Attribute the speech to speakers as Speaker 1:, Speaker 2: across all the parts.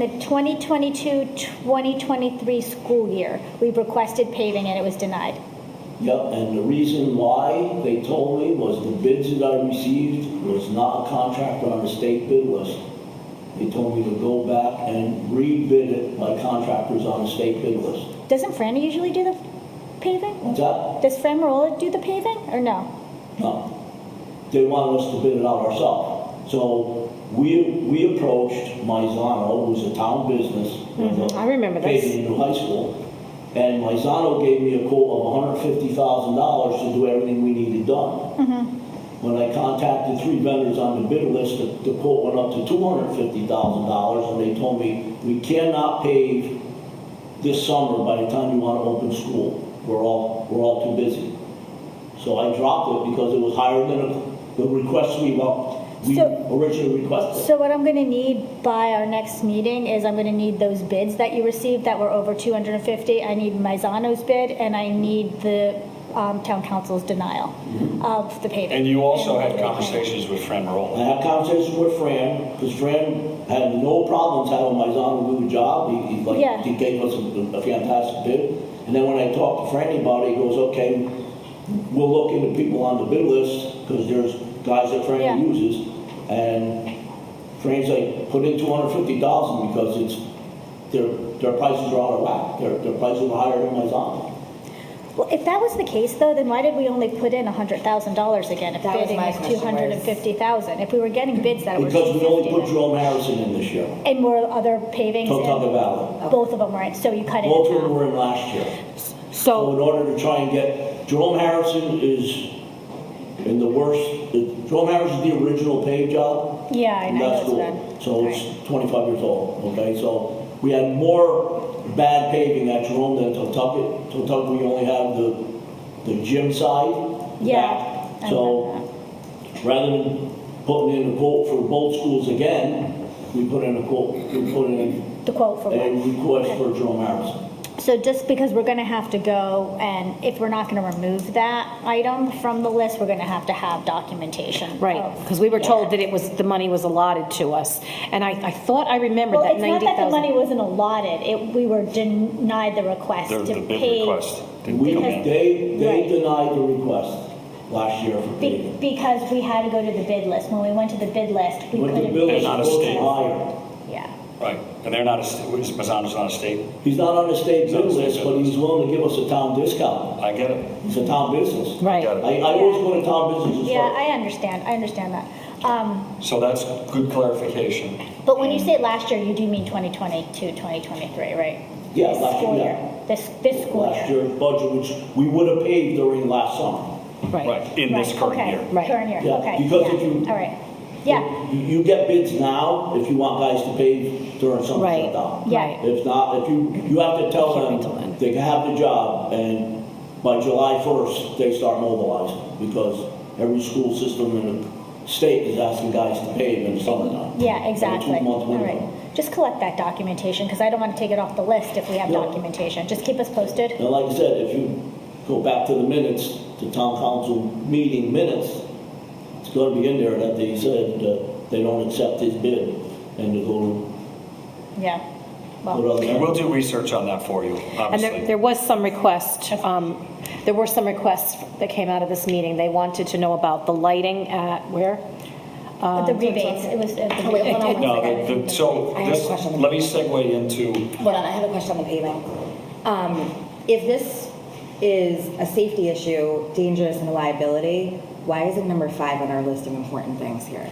Speaker 1: In the 2022-2023 school year, we requested paving and it was denied.
Speaker 2: Yep, and the reason why they told me was the bids that I received was not a contractor on the state bid list. They told me to go back and rebid it by contractors on the state bid list.
Speaker 1: Doesn't Fran usually do the paving?
Speaker 2: What's that?
Speaker 1: Does Fran Marola do the paving or no?
Speaker 2: No. They wanted us to bid it out ourselves. So we, we approached Mizano, who's a town business.
Speaker 3: Mhm, I remember this.
Speaker 2: Paving in the high school. And Mizano gave me a quote of $150,000 to do everything we needed done. When I contacted three vendors on the bid list, the the quote went up to $250,000, and they told me, "We cannot pave this summer by the time you want to open school. We're all, we're all too busy." So I dropped it because it was higher than the request we, wa- we
Speaker 1: So-
Speaker 2: originally requested.
Speaker 1: So what I'm gonna need by our next meeting is I'm gonna need those bids that you received that were over 250. I need Mizano's bid and I need the um, town council's denial of the paving.
Speaker 4: And you also had
Speaker 1: And-
Speaker 4: conversations with Fran
Speaker 2: I
Speaker 4: Marola.
Speaker 2: had conversations with Fran, because Fran had no problems having Mizano do a job. He, he
Speaker 1: Yeah.
Speaker 2: like, he gave us a a fantastic bid. And then when I talked to Fran about it, he goes, okay, we'll look into people on the bid list, because there's guys that
Speaker 1: Yeah.
Speaker 2: Fran uses. And Fran's like, put in two hundred fifty thousand, because it's, their, their prices are out of whack. Their, their prices are higher than Mizano.
Speaker 1: Well, if that was the case, though, then why did we only put in hundred thousand dollars again if
Speaker 3: That was
Speaker 1: bidding
Speaker 3: my
Speaker 1: was two
Speaker 3: question,
Speaker 1: hundred and fifty thousand? If we were getting bids that were
Speaker 2: Because we only put
Speaker 1: 250,
Speaker 2: Jerome Harrison in this year,
Speaker 1: and more other pavings,
Speaker 2: Totucket
Speaker 1: and
Speaker 2: Valley.
Speaker 1: both of them were in, so you cut it
Speaker 2: Both of them
Speaker 1: in half.
Speaker 2: were in last year. So in
Speaker 3: So,
Speaker 2: order to try and get, Jerome Harrison is in the worst, Jerome Harrison's the original paved job.
Speaker 1: Yeah, I
Speaker 2: and
Speaker 1: know
Speaker 2: that's
Speaker 1: it's
Speaker 2: cool.
Speaker 1: bad.
Speaker 2: So it's 25 years old, okay? So we had more bad paving at Jerome than Totucket. Totucket, we only have the, the gym side. the
Speaker 1: Yeah,
Speaker 2: back.
Speaker 1: I
Speaker 2: So
Speaker 1: remember
Speaker 2: rather than putting in a quote for both schools again, we put in a quote, we put in
Speaker 1: The quote for
Speaker 2: a
Speaker 1: what?
Speaker 2: request for Jerome Harrison.
Speaker 1: So just because we're gonna have to go, and if we're not gonna remove that item from the list, we're gonna have to have documentation.
Speaker 3: right,
Speaker 1: of-
Speaker 3: because we were told
Speaker 1: Oh, Yeah.
Speaker 3: that it was, the money was allotted to us. And I, I thought I remembered
Speaker 1: Well,
Speaker 3: that
Speaker 1: it's not that the money
Speaker 3: 90,000.
Speaker 1: wasn't allotted, it, we were denied the request
Speaker 4: The
Speaker 1: to
Speaker 4: the bid
Speaker 1: pay.
Speaker 4: request didn't
Speaker 2: We,
Speaker 4: come
Speaker 1: Because-
Speaker 4: in.
Speaker 2: they, they
Speaker 1: Right.
Speaker 2: denied the request last year for
Speaker 1: Be-
Speaker 2: paving.
Speaker 1: Because we had to go to the bid list. When we went to the bid list, we
Speaker 2: When the
Speaker 1: couldn't.
Speaker 2: bill
Speaker 4: They're
Speaker 2: is
Speaker 1: bid.
Speaker 4: not a
Speaker 2: supposed to
Speaker 4: state.
Speaker 2: be higher.
Speaker 1: Yeah.
Speaker 4: Right, and they're not, a st- is Mazzano's not a state?
Speaker 2: He's not on the state
Speaker 4: He's not
Speaker 2: bid
Speaker 4: a state
Speaker 2: list,
Speaker 4: bid
Speaker 2: but
Speaker 4: list.
Speaker 2: he's willing to give us a town discount.
Speaker 4: I get it.
Speaker 2: It's a town business. I,
Speaker 3: Right.
Speaker 2: I always go to town businesses
Speaker 1: Yeah,
Speaker 2: first.
Speaker 1: I understand. I understand that. Um,
Speaker 4: So that's good clarification.
Speaker 1: but when you say last year, you do mean 2022, 2023, right?
Speaker 2: Yeah,
Speaker 1: This
Speaker 2: last
Speaker 1: school
Speaker 2: year.
Speaker 1: This, this school
Speaker 2: Last
Speaker 1: year.
Speaker 2: year's budget, which we would have paid during last summer.
Speaker 3: Right,
Speaker 4: Right, in this
Speaker 1: Right,
Speaker 4: current
Speaker 1: okay,
Speaker 4: year.
Speaker 3: Right.
Speaker 1: Current year,
Speaker 2: Yeah,
Speaker 1: okay.
Speaker 2: because
Speaker 1: yeah,
Speaker 2: if you-
Speaker 1: All right. Yeah,
Speaker 2: You, you get bids now if you want guys to pave during summer
Speaker 3: Right.
Speaker 2: shutdown.
Speaker 1: Yeah.
Speaker 3: right.
Speaker 2: If not, if you, you have to tell
Speaker 3: Can't wait till
Speaker 2: them
Speaker 3: then.
Speaker 2: they can have the job, and by July 1st, they start mobilizing, because every school system in the state is asking guys to pave in the summertime.
Speaker 1: yeah, exactly.
Speaker 2: two-month
Speaker 1: All right.
Speaker 2: window.
Speaker 1: Just collect that documentation because I don't want to take it off the list if we have
Speaker 2: Yeah.
Speaker 1: documentation. Just keep us posted.
Speaker 2: And like I said, if you go back to the minutes, the town council meeting minutes, it's gonna be in there that they said that they don't accept his bid, and they go,
Speaker 1: Yeah. Well.
Speaker 2: put
Speaker 4: And
Speaker 2: other,
Speaker 4: we'll do research on that for you,
Speaker 3: And there,
Speaker 4: obviously.
Speaker 3: there was some request, um, there were some requests that came out of this meeting. They wanted to know about the lighting at, where?
Speaker 1: The rebates, it was. uh, the
Speaker 5: Um, Oh, wait, hold on
Speaker 1: rebate.
Speaker 5: one
Speaker 4: No,
Speaker 5: second.
Speaker 4: the- the- so
Speaker 5: I have a
Speaker 4: this,
Speaker 5: question.
Speaker 4: let me segue into,
Speaker 5: Hold on, I have a question on the paving. Um, if this is a safety issue, dangerous and a liability, why is it number five on our list of important things here?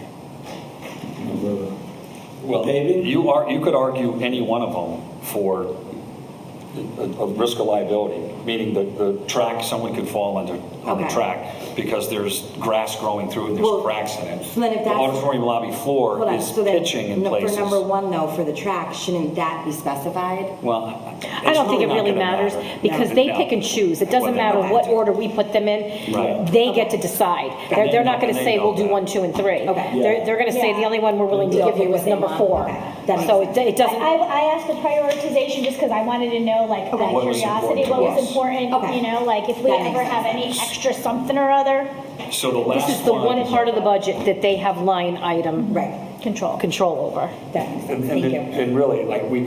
Speaker 4: well,
Speaker 2: Paving?
Speaker 4: you are, you could argue any one of them for a- a risk of liability, meaning the, the track, someone could fall under, on the
Speaker 5: Okay.
Speaker 4: track because there's grass growing through and
Speaker 5: Well,
Speaker 4: there's cracks in it.
Speaker 5: so then if
Speaker 4: The
Speaker 5: that's-
Speaker 4: auditorium lobby
Speaker 5: Hold
Speaker 4: floor
Speaker 5: on,
Speaker 4: is
Speaker 5: so then,
Speaker 4: pitching in
Speaker 5: no-
Speaker 4: places.
Speaker 5: For number one though, for the track, shouldn't that be specified?
Speaker 4: Well,
Speaker 3: I don't think it really matters because they pick and choose. It doesn't matter what order we put them in.
Speaker 4: Right.
Speaker 3: They get to decide. They're, they're not going to say, we'll do one, two, and three.
Speaker 5: Okay.
Speaker 3: They're, they're going to say, the only one we're willing to
Speaker 5: Yeah.
Speaker 3: give you was number four.
Speaker 5: That makes
Speaker 3: So it it
Speaker 1: I,
Speaker 3: doesn't.
Speaker 1: I I asked the prioritization just because I wanted to know, like, out of
Speaker 4: What was
Speaker 1: curiosity,
Speaker 4: important
Speaker 1: what
Speaker 4: to
Speaker 1: was
Speaker 4: us.
Speaker 1: important,
Speaker 5: Okay.
Speaker 1: you know, like, if we
Speaker 5: That makes
Speaker 1: ever have
Speaker 5: sense.
Speaker 1: any extra something or other.
Speaker 4: So the
Speaker 3: This
Speaker 4: last
Speaker 3: is the one part of the budget that they have line item.
Speaker 5: Right.
Speaker 6: Control.
Speaker 7: control over.
Speaker 3: That makes sense.
Speaker 5: And-
Speaker 3: Thank
Speaker 5: And
Speaker 3: you.
Speaker 5: and really, like, we